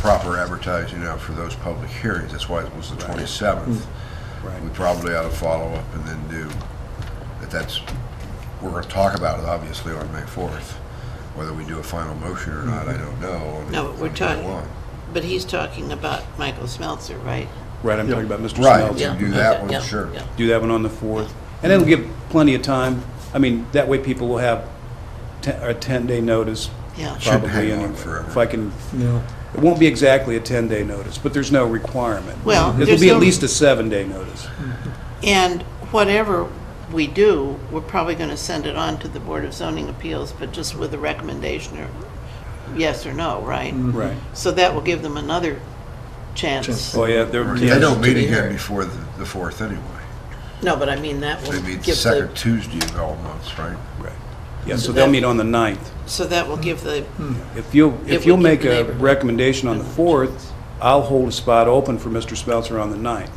proper advertising out for those public hearings. That's why it was the 27th. Right. We probably ought to follow up and then do, if that's, we're going to talk about it, obviously, on May 4th. Whether we do a final motion or not, I don't know. on- No, but we're on May talking- 1. But he's talking about Michael Smeltzer, right? Right, I'm talking about Mr. Right, Smeltzer. you do that okay, one, yeah, sure. yeah. Do that one on the 4th. And it'll give plenty of time. I mean, that way people will have te- a 10-day notice. Yeah. Shouldn't probably hang on anyway. forever. If I can, No. it won't be exactly a 10-day notice, but there's no requirement. Well, It'll there's be at no- least a seven-day notice. Mm-hmm. And whatever we do, we're probably going to send it on to the Board of Zoning Appeals, but just with a recommendation or yes or no, right? Mm-hmm. Right. So that will give them another chance. Chance. Oh, yeah, there, Or yeah. They don't meet be again heard. before the the 4th anyway. No, but I mean, that will They meet the give second the, Tuesday of all months, right? Right. Yeah, so they'll meet on the 9th. so that will give the, Mm-hmm. If you'll, If if we you'll keep make the a neighborhood. recommendation on the 4th, I'll hold a spot open for Mr. Smeltzer on the 9th.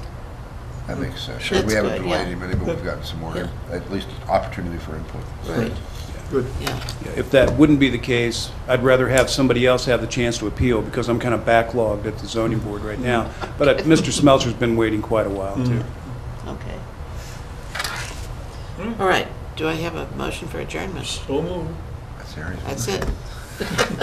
That makes sense. That's We haven't good, delayed yeah. him any, but we've gotten some more, Yeah. at least opportunity for input. right, Good. yeah, Yeah, If that wouldn't be the case, I'd rather have somebody else have the chance to appeal, because I'm kind of backlogged at the zoning board right now. But uh, Mr. Smeltzer's been waiting quite a while, too. okay. Mm-hmm. All right, do I have a motion for adjournment? So moved. That's the area. That's it.